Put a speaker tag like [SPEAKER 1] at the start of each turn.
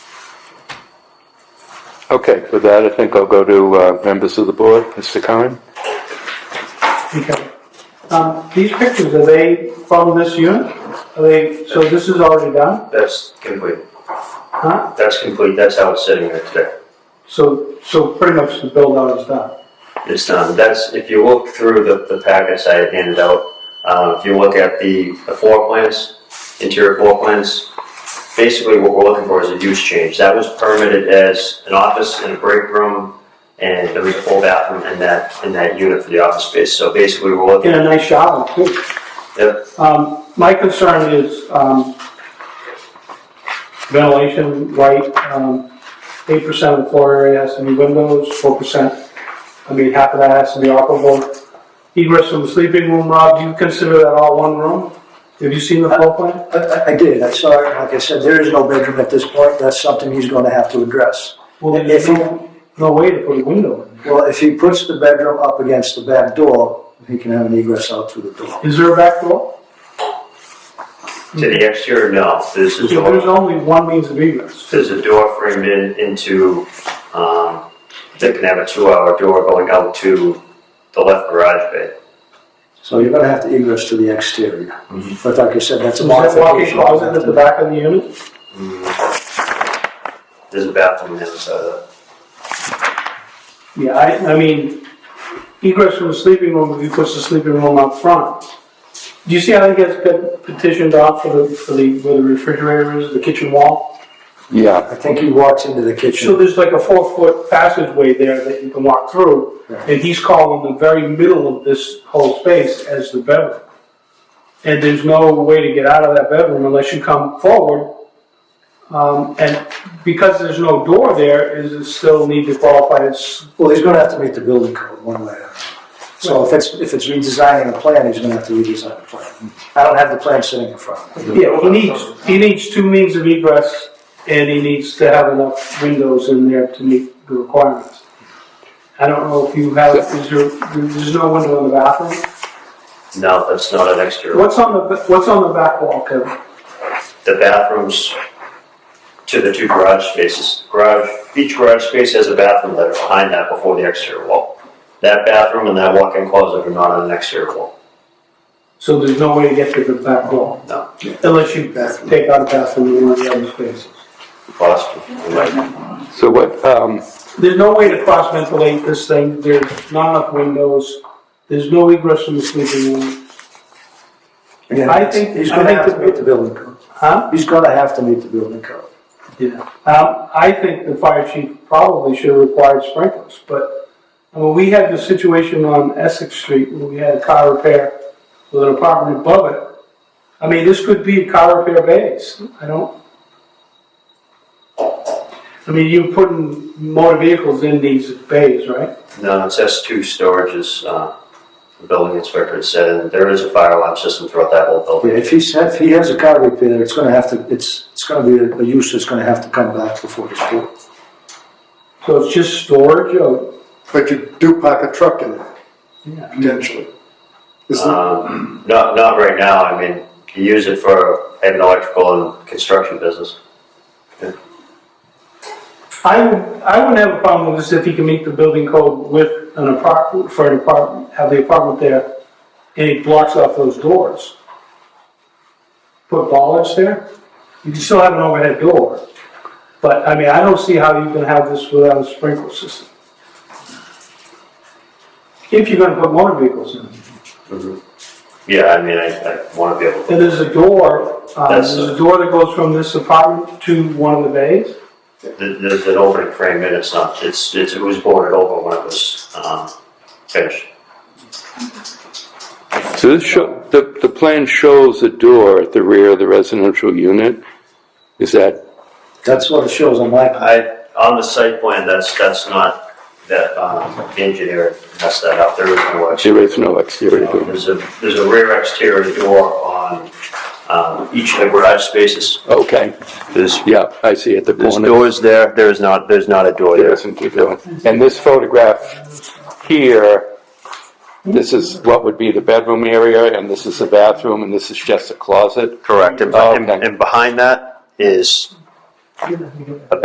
[SPEAKER 1] Okay, with that, I think I'll go to uh, members of the board. Mr. Curran?
[SPEAKER 2] Okay. Um, These pictures, are they from this unit? Are they, so this is already done?
[SPEAKER 3] That's complete.
[SPEAKER 2] Huh?
[SPEAKER 3] That's complete. That's how it's sitting there today.
[SPEAKER 2] So, so pretty much the build out is done?
[SPEAKER 3] It's done. That's, if you look through the, the packets I had handed out, uh, if you look at the, the floor plans, interior floor plans, basically what we're looking for is a use change. That was permitted as an office and a break room and there was a full bathroom in that, in that unit for the office space. So basically we're looking,
[SPEAKER 2] In a nice shower, too.
[SPEAKER 3] Yep.
[SPEAKER 2] Um, My concern is um, ventilation, light, um, 8% of the floor area has to be windows, 4%, I mean, half of that has to be operable. Egress from the sleeping room, Rob, do you consider that all one room? Have you seen the floor plan?
[SPEAKER 4] I- I, I did, I saw, it. like I said, there is no bedroom at this point, that's something he's gonna have to address.
[SPEAKER 2] Well,
[SPEAKER 4] If
[SPEAKER 2] there's
[SPEAKER 4] he,
[SPEAKER 2] no- no way to put a window in.
[SPEAKER 4] well, if he puts the bedroom up against the back door, he can have an egress out through the door.
[SPEAKER 2] Is there a back door?
[SPEAKER 3] to the exterior, no, this
[SPEAKER 2] So
[SPEAKER 3] is.
[SPEAKER 2] there's only one means of egress.
[SPEAKER 3] There's a door framed in into, um, they can have a two-hour door going out to the left garage bay.
[SPEAKER 4] So you're gonna have to egress to the exterior. But like I said, that's a
[SPEAKER 2] Is that Mm-hmm. walk-in
[SPEAKER 4] modification.
[SPEAKER 2] closet at the back of the unit?
[SPEAKER 3] There's a bathroom uh, on the other side of
[SPEAKER 2] Yeah, I, I mean, egress from the sleeping room, if you push the sleeping room up front. Do you see how it gets pet- petitioned off for the, for the, where the refrigerator is, the kitchen wall?
[SPEAKER 1] Yeah.
[SPEAKER 4] I think he walks into the
[SPEAKER 2] So
[SPEAKER 4] kitchen,
[SPEAKER 2] there's like a four-foot passageway there that you can walk through,
[SPEAKER 4] Yeah.
[SPEAKER 2] and he's calling the very middle of this whole space as the bedroom. And there's no way to get out of that bedroom unless you come forward. Um, and because there's no door there, is it still need to qualify as,
[SPEAKER 4] well, he's gonna have to meet the building code one way or another. So if it's, if it's redesigning a plan, he's gonna have to redesign the plan. I don't have the plan sitting in front of me.
[SPEAKER 2] yeah, he needs, he needs two means of egress, and he needs to have enough windows in there to meet the requirements. I don't know if you have, is there, there's no window in the bathroom?
[SPEAKER 3] the, no, that's not an exterior.
[SPEAKER 2] What's on the, what's on the back wall, Kevin?
[SPEAKER 3] The bathrooms to the two garage spaces, garage, each garage space has a bathroom that are behind that before the exterior wall. That bathroom and that walk-in closet are not on an exterior wall.
[SPEAKER 2] So there's no way to get to the back wall?
[SPEAKER 3] No.
[SPEAKER 2] Unless you take out a bathroom in one of the other spaces.
[SPEAKER 3] Possible, you might-
[SPEAKER 1] So what, um,
[SPEAKER 2] There's no way to cross ventilate this thing, there's not enough windows, there's no egress from the sleeping room.
[SPEAKER 4] Again,
[SPEAKER 2] I think-
[SPEAKER 4] He's
[SPEAKER 2] I
[SPEAKER 4] gonna
[SPEAKER 2] think
[SPEAKER 4] have to
[SPEAKER 2] the-
[SPEAKER 4] meet the building code.
[SPEAKER 2] Huh?
[SPEAKER 4] He's gonna have to meet the building code.
[SPEAKER 2] Yeah. Um, I think the fire chief probably should have required sprinklers, but, I mean, we had the situation on Essex Street, where we had a car repair with an apartment above it. I mean, this could be a car repair base, I don't. I mean, you're putting motor vehicles in these bays, right?
[SPEAKER 3] No, it says two storages, uh, the building inspector had said, and there is a fire alarm system throughout that whole building.
[SPEAKER 4] Yeah, if he's, if he has a car repair, it's gonna have to, it's, it's gonna be a- a use that's gonna have to come back before the board.
[SPEAKER 2] So it's just storage or?
[SPEAKER 5] But you do park a truck in there,
[SPEAKER 2] Yeah.
[SPEAKER 5] potentially. Isn't it?
[SPEAKER 3] Um, not, not right now, I mean, you use it for, I have an electrical and construction business.
[SPEAKER 2] I would, I wouldn't have a problem with this if he can meet the building code with an apartment, for an apartment, have the apartment there, and he blocks off those doors. Put bollards there, you can still have an overhead door, but, I mean, I don't see how you can have this without a sprinkler system. If you're gonna put motor vehicles in,
[SPEAKER 3] Yeah, I mean, I, I wanna be able to,
[SPEAKER 2] and there's a door, uh,
[SPEAKER 3] That's-
[SPEAKER 2] there's a door that goes from this apartment to one of the bays.
[SPEAKER 3] there- there's an opening frame and it's not, it's, it's, it was boarded over when it was, um, finished.
[SPEAKER 1] so this show, the, the plan shows a door at the rear of the residential unit? Is that,
[SPEAKER 4] That's what it shows on my plan.
[SPEAKER 3] I, on the site plan, that's, that's not, that, um, the engineer messed that up, there is no actually.
[SPEAKER 1] there is no exterior
[SPEAKER 3] Uh,
[SPEAKER 1] door?
[SPEAKER 3] There's a, there's a rear exterior door on um, each of the garage spaces.
[SPEAKER 1] Okay,
[SPEAKER 3] There's,
[SPEAKER 1] yeah, I see at the
[SPEAKER 3] there's
[SPEAKER 1] corner.
[SPEAKER 3] doors there, there is not, there's not a door
[SPEAKER 1] There
[SPEAKER 3] there.
[SPEAKER 1] isn't a door. And this photograph here, this is what would be the bedroom area, and this is the bathroom, and this is just a closet?
[SPEAKER 3] Correct, and,
[SPEAKER 1] Oh,
[SPEAKER 3] and
[SPEAKER 1] okay.
[SPEAKER 3] and behind that is